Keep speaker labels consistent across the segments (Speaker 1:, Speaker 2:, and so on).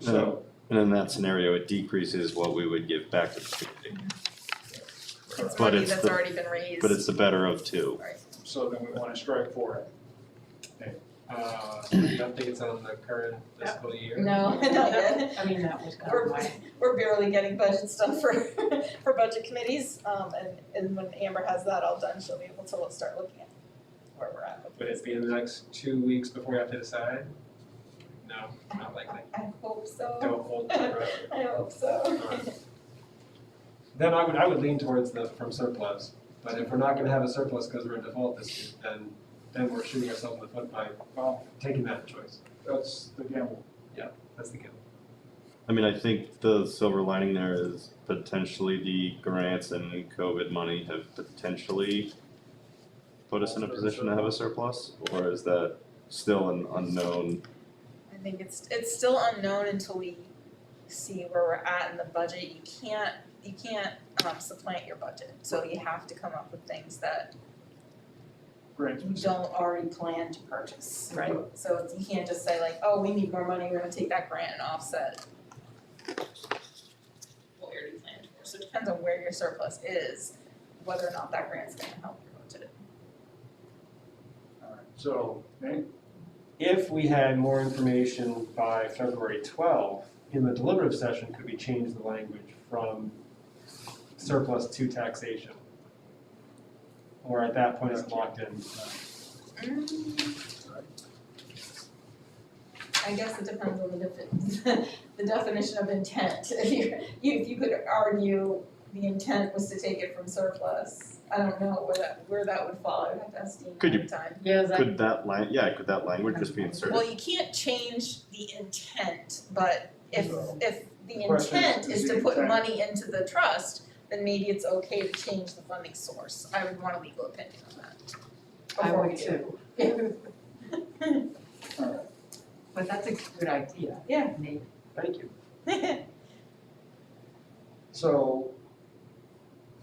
Speaker 1: So,
Speaker 2: And in that scenario, it decreases what we would give back to the community,
Speaker 3: It's
Speaker 2: But
Speaker 3: money
Speaker 2: it's
Speaker 3: that's
Speaker 2: the-
Speaker 3: already been raised.
Speaker 2: but it's the better of two.
Speaker 1: so then we wanna strike for it.
Speaker 4: Uh, I don't think it's on the current fiscal year.
Speaker 3: No, not yet.
Speaker 5: I mean, that was kind
Speaker 3: Or-
Speaker 5: of my,
Speaker 3: We're barely getting budget stuff for, for budget committees, um, and, and when Amber has that all done, she'll be able to start looking at where we're at. with
Speaker 4: Would
Speaker 3: this.
Speaker 4: it be in the next two weeks before we have to decide? No, not likely.
Speaker 3: I hope so,
Speaker 4: Don't hold my breath.
Speaker 3: I hope so.
Speaker 4: Then I would, I would lean towards the, from surplus, but if we're not gonna have a surplus because we're in default this year, then, then we're shooting ourselves in the foot by
Speaker 1: Well,
Speaker 4: taking that choice.
Speaker 1: that's the gamble.
Speaker 4: That's the game.
Speaker 2: I mean, I think the silver lining there is potentially the grants and COVID money have potentially put us in a position to have a surplus, or is that still an unknown?
Speaker 3: I think it's it's still unknown until we see where we're at in the budget. You can't you can't um supplant your budget, so you have to come up with things that
Speaker 1: Grant,
Speaker 3: you don't already plan to purchase.
Speaker 5: right,
Speaker 3: So you can't just say like, oh, we need more money, we're gonna take that grant and offset what we already planned for. So it depends on where your surplus is, whether or not that grant's gonna help your budget.
Speaker 1: alright, so, Nate,
Speaker 4: If we had more information by February 12, in the deliberative session, could we change the language from surplus to taxation? Or at that point, it's locked in?
Speaker 3: Mm. I guess it depends on the definition, the definition of intent. If you, you, if you could argue the intent was to take it from surplus, I don't know where that, where that would fall, I would have to ask Dean
Speaker 2: Could you-
Speaker 3: ahead of time.
Speaker 5: yeah, is that,
Speaker 2: Could that lan- yeah, could that language just be inserted?
Speaker 3: Well, you can't change the intent, but if,
Speaker 1: No.
Speaker 3: if the
Speaker 1: The question is,
Speaker 3: intent
Speaker 1: is
Speaker 3: is to
Speaker 1: the
Speaker 3: put
Speaker 1: intent-
Speaker 3: money into the trust, then maybe it's okay to change the funding source. I would want a legal opinion on that.
Speaker 5: I
Speaker 3: before we
Speaker 5: would
Speaker 3: do.
Speaker 5: too,
Speaker 1: alright,
Speaker 5: but that's a good idea.
Speaker 3: Yeah.
Speaker 5: Nate.
Speaker 4: Thank you.
Speaker 1: so,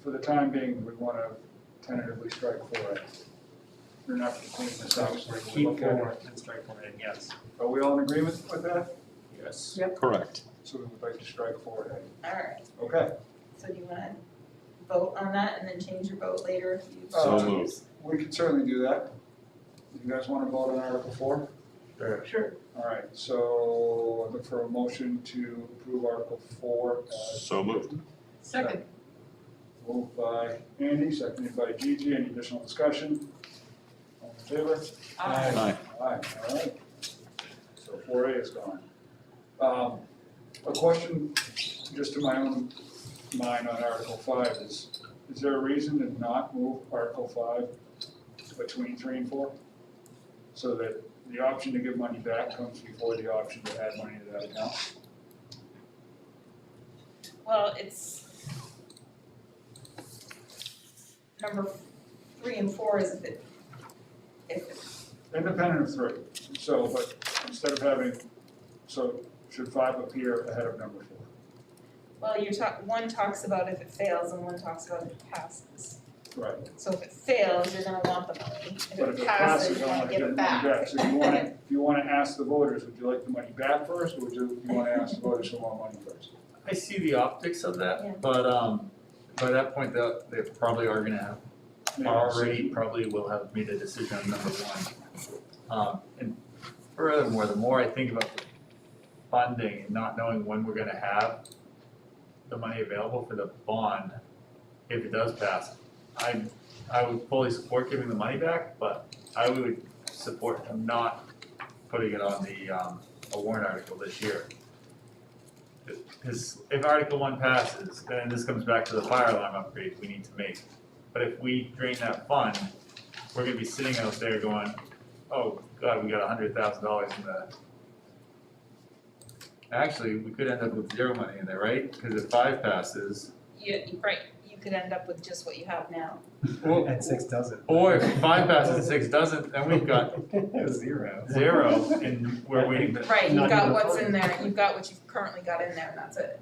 Speaker 1: for the time being, we wanna tentatively strike for it. We're not gonna clean this out,
Speaker 4: Actually,
Speaker 1: so
Speaker 4: keep
Speaker 1: we'll
Speaker 4: going
Speaker 1: forward.
Speaker 4: with strike point in, yes.
Speaker 1: Are we all in agreement with that? Yes.
Speaker 2: Correct.
Speaker 1: So we would like to strike for it,
Speaker 3: Alright,
Speaker 1: okay,
Speaker 3: so do you wanna vote on that and then change your vote later if you?
Speaker 1: So
Speaker 2: moved.
Speaker 1: we can certainly do that. You guys wanna vote on Article four?
Speaker 5: Sure.
Speaker 1: Alright, so I look for a motion to approve Article four as
Speaker 2: So moved.
Speaker 5: Second,
Speaker 1: moved by Andy, seconded by Gigi, any additional discussion? All in favor?
Speaker 5: aye,
Speaker 2: Aye.
Speaker 1: Aye, alright. So four A is gone. Um, a question, just to my own mind on Article five is, is there a reason to not move Article five between three and four? So that the option to give money back comes before the option to add money to that account?
Speaker 3: Well, it's. Number three and four is if it, if it
Speaker 1: Independent of three, so, but instead of having, so should five appear ahead of number four?
Speaker 3: Well, you're talk, one talks about if it fails and one talks about if it passes.
Speaker 1: Right,
Speaker 3: So if it fails, you're gonna want the money. If
Speaker 1: but if
Speaker 3: it
Speaker 1: it
Speaker 3: passes,
Speaker 1: passes,
Speaker 3: you
Speaker 1: I
Speaker 3: wanna
Speaker 1: want to
Speaker 3: give
Speaker 1: get
Speaker 3: it
Speaker 1: it back.
Speaker 3: back.
Speaker 1: So you wanna, if you wanna ask the voters, would you like the money back first, or would you, you wanna ask the voters for more money first?
Speaker 6: I see the optics of
Speaker 3: Yeah.
Speaker 6: that, but um, by that point, they they probably are gonna have,
Speaker 1: Maybe it's-
Speaker 6: already probably will have made a decision on number one. Um, and furthermore, the more I think about the funding and not knowing when we're gonna have the money available for the bond, if it does pass, I, I would fully support giving the money back, but I would support not putting it on the um, a warrant article this year. Because if Article one passes, then this comes back to the fire alarm upgrade we need to make. But if we drain that fund, we're gonna be sitting out there going, oh, God, we got a hundred thousand dollars in the. Actually, we could end up with zero money in there, right? Because if five passes,
Speaker 3: You, right, you could end up with just what you have now.
Speaker 6: or,
Speaker 4: And six doesn't.
Speaker 6: or if five passes and six doesn't, then we've got
Speaker 4: Zero.
Speaker 6: zero and we're waiting to.
Speaker 3: Right,
Speaker 4: Not
Speaker 3: you've got
Speaker 4: even a
Speaker 3: what's
Speaker 4: third.
Speaker 3: in there, you've got what you've currently got in there, and that's it.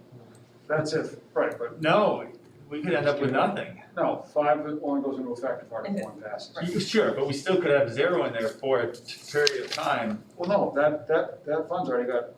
Speaker 1: That's if, right, but
Speaker 6: No, we could end up with nothing.
Speaker 1: no, five only goes into effect if Article one passes.
Speaker 3: Right.
Speaker 6: Sure, but we still could have zero in there for a period of time
Speaker 1: Well, no, that, that, that fund's already got